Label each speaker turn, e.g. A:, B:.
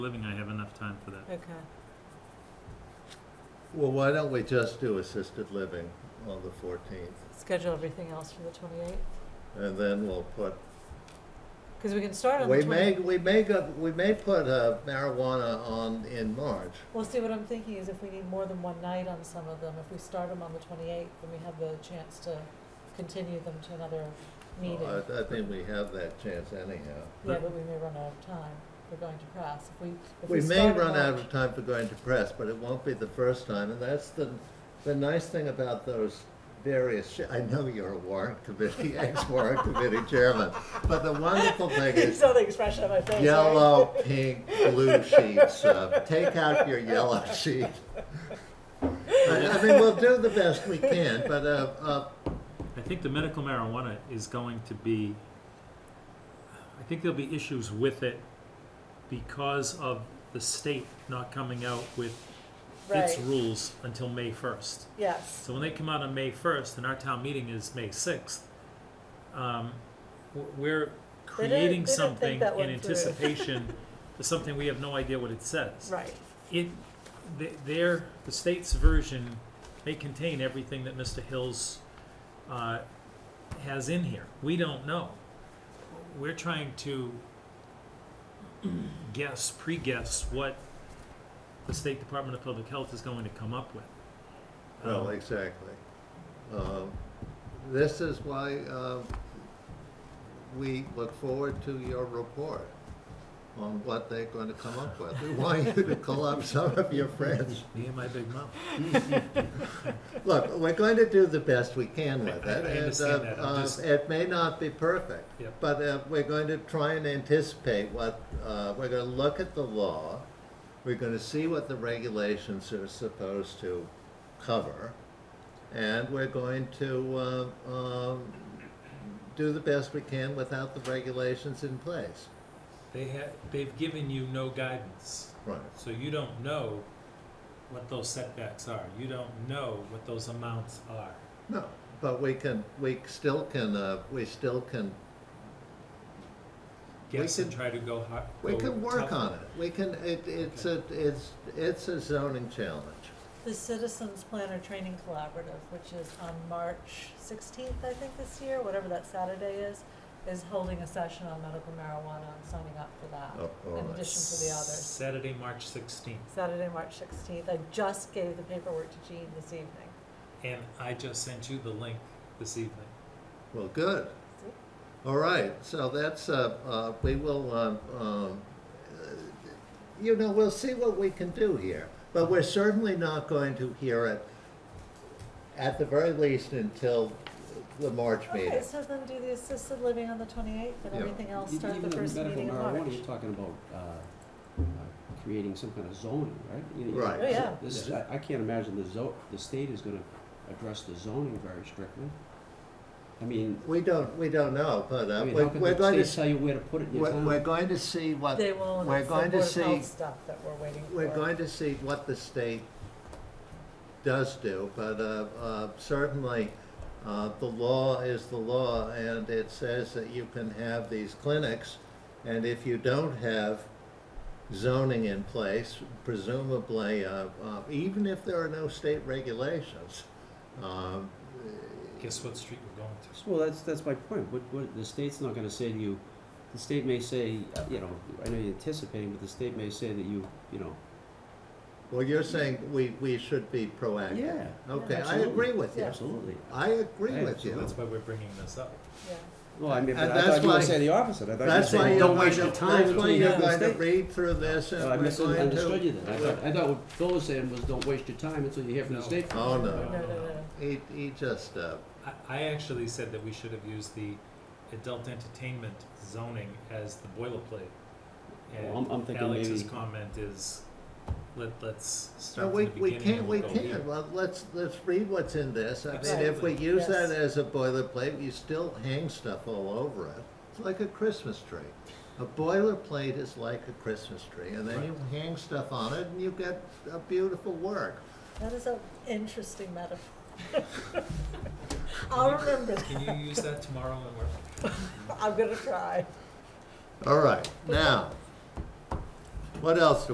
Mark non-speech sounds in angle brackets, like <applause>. A: living, I have enough time for that.
B: Okay.
C: Well, why don't we just do assisted living on the fourteenth,
B: Schedule everything else for the 28th?
C: and then we'll put,
B: Because we can start on the
C: we
B: 28th.
C: may, we may go, we may put uh, marijuana on in March.
B: Well, see, what I'm thinking is if we need more than one night on some of them, if we start them on the 28th, then we have the chance to continue them to another meeting.
C: I, I think we have that chance anyhow.
B: Yeah, but we may run out of time. We're going to press. If we, if we
C: We may
B: start in
C: run out
B: March-
C: of time for going to press, but it won't be the first time, and that's the, the nice thing about those various, sh- I know you're a warrant committee, <laughs> ex-warrant committee chairman, but the wonderful thing
B: You <laughs>
C: is,
B: saw the expression on my face, right?
C: yellow, pink, blue sheets. Uh, take out your yellow sheet. I, I mean, we'll do the best we can, but uh, uh,
A: I think the medical marijuana is going to be, I think there'll be issues with it because of the state not coming out with its
B: Right,
A: rules until May first.
B: yes.
A: So when they come out on May first, and our town meeting is May sixth, um, w- we're
B: They didn't-
A: creating
B: they didn't think
A: something
B: that
A: in
B: one through. <laughs>
A: anticipation for something we have no idea what it says.
B: Right,
A: It, th- their, the state's version may contain everything that Mr. Hills, uh, has in here. We don't know. We're trying to <clears throat> guess, pre-guess what the State Department of Public Health is going to come up with.
C: well,
A: Um,
C: exactly. Um, this is why uh, we look forward to your report on what they're going to come up with. We want you to call up some of your friends.
A: Me and my big mouth.
C: Look, we're going to do the best we can with
A: I- I
C: it, and
A: understand that.
C: uh,
A: I'm
C: uh,
A: just-
C: it may not be perfect.
A: Yep.
C: But uh, we're going to try and anticipate what, uh, we're going to look at the law, we're going to see what the regulations are supposed to cover, and we're going to uh, um, do the best we can without the regulations in place.
A: They have, they've given you no guidance,
C: Right.
A: so you don't know what those setbacks are. You don't know what those amounts are.
C: No, but we can, we still can, uh, we still can We
A: Guess and
C: could-
A: try to go hard.
C: We can work on it. We can, it, it's a, it's, it's a zoning challenge.
B: the Citizens Planner Training Collaborative, which is on March 16th, I think, this year, whatever that Saturday is, is holding a session on medical marijuana. I'm signing up for that.
C: Oh, all
B: In
C: right.
B: addition to the others.
A: Saturday, March sixteenth,
B: Saturday, March 16th. I just gave the paperwork to Jean this evening.
A: and I just sent you the link this evening.
C: Well, good. All right, so that's, uh, uh, we will, um, um, uh, you know, we'll see what we can do here. But we're certainly not going to hear it, at the very least, until the March
B: Okay,
C: meeting.
B: so then do the assisted living on the 28th and
C: Yeah.
B: everything else
D: E-
B: start
D: even
B: the
D: on
B: first
D: medical
B: meeting in
D: marijuana,
B: March.
D: You're talking about, uh, uh, creating some kind of zoning, right? You- you-
C: Right.
B: Oh, yeah.
D: This is, I, I can't imagine the zo, the state is gonna address the zoning very strictly. I mean,
C: We don't, we don't know, but,
D: I
C: uh,
D: mean,
C: we're,
D: how can
C: we're
D: the
C: going
D: state
C: to,
D: tell you where to put it in your
C: we're, we're
D: town?
C: going to see what,
B: They won't,
C: Uh, we're
B: it's the
C: going
B: Board
C: to
B: of Health
C: see
B: stuff that we're waiting for.
C: We're going to see what the state does do, but uh, uh, certainly, uh, the law is the law, and it says that you can have these clinics, and if you don't have zoning in place, presumably, uh, uh, even if there are no state regulations, um,
A: Guess what street we're going to?
D: Well, that's, that's my point, what, what, the state's not gonna say to you, the state may say, uh, you know, I know you're anticipating, but the state may say that you, you know,
C: well, you're saying we, we should be proactive.
D: yeah.
C: Okay, I
D: absolutely.
C: agree with you.
D: Absolutely.
C: I agree with
A: So
C: you.
A: that's why we're bringing this up.
B: Yeah.
D: Well, I mean, but
C: And
D: I
C: that's
D: thought you
C: why-
D: would say the opposite, I thought you'd
C: That's why
D: say,
C: you're
D: don't
C: going
D: waste
C: to,
D: your time
C: that's
D: until
C: why
D: you
C: you're
D: have the
C: going to
D: state.
C: read through this and
D: Well, Uh, I
C: we're going
D: misunderstood you
C: to.
D: then. I thought, I thought what Phil was saying was, don't waste your time until you hear from the
A: No.
D: state.
C: Oh,
B: No,
C: no.
B: no, no.
C: He, he just, uh,
A: I, I actually said that we should have used the adult entertainment zoning as the boilerplate.
D: Well, I'm- I'm
A: And
D: thinking
A: Alex's
D: maybe-
A: comment is, let, let's
C: no,
A: start
C: we,
A: from the
C: we
A: beginning.
C: can't,
A: and
C: we
A: go
C: can't.
A: here.
C: Well, let's, let's read what's in this. I mean, if we
A: Absolutely.
C: use that
B: Yes.
C: as a boilerplate, you still hang stuff all over it. It's like a Christmas tree. A boilerplate is like a Christmas tree and then
A: Right.
C: you hang stuff on it and you get a beautiful work.
B: That is an interesting metaphor.
C: <laughs>
B: I'll remember that.
A: Can you use that tomorrow and work?
B: I'm gonna try.
C: All right, now, What else do